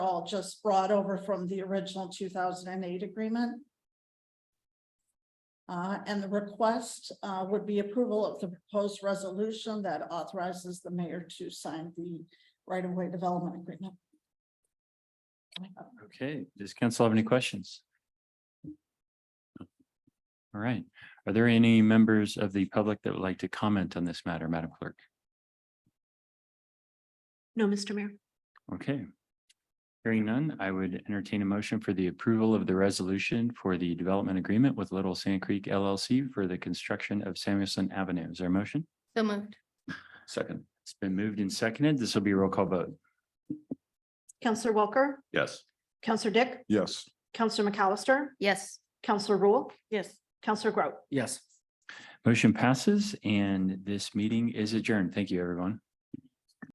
all just brought over from the original two thousand and eight agreement. Uh, and the request, uh, would be approval of the proposed resolution that authorizes the mayor to sign the right-of-way development agreement. Okay, does council have any questions? All right, are there any members of the public that would like to comment on this matter, Madam Clerk? No, Mr. Mayor. Okay. Hearing none, I would entertain a motion for the approval of the resolution for the development agreement with Little Sand Creek LLC for the construction of Samuelson Avenue. Is there a motion? So moved. Second. It's been moved and seconded. This will be a roll call vote. Counselor Walker, Yes. Counselor Dick, Yes. Counselor McAllister, Yes. Counselor Rule, Yes. Counselor Groot. Yes. Motion passes and this meeting is adjourned. Thank you, everyone.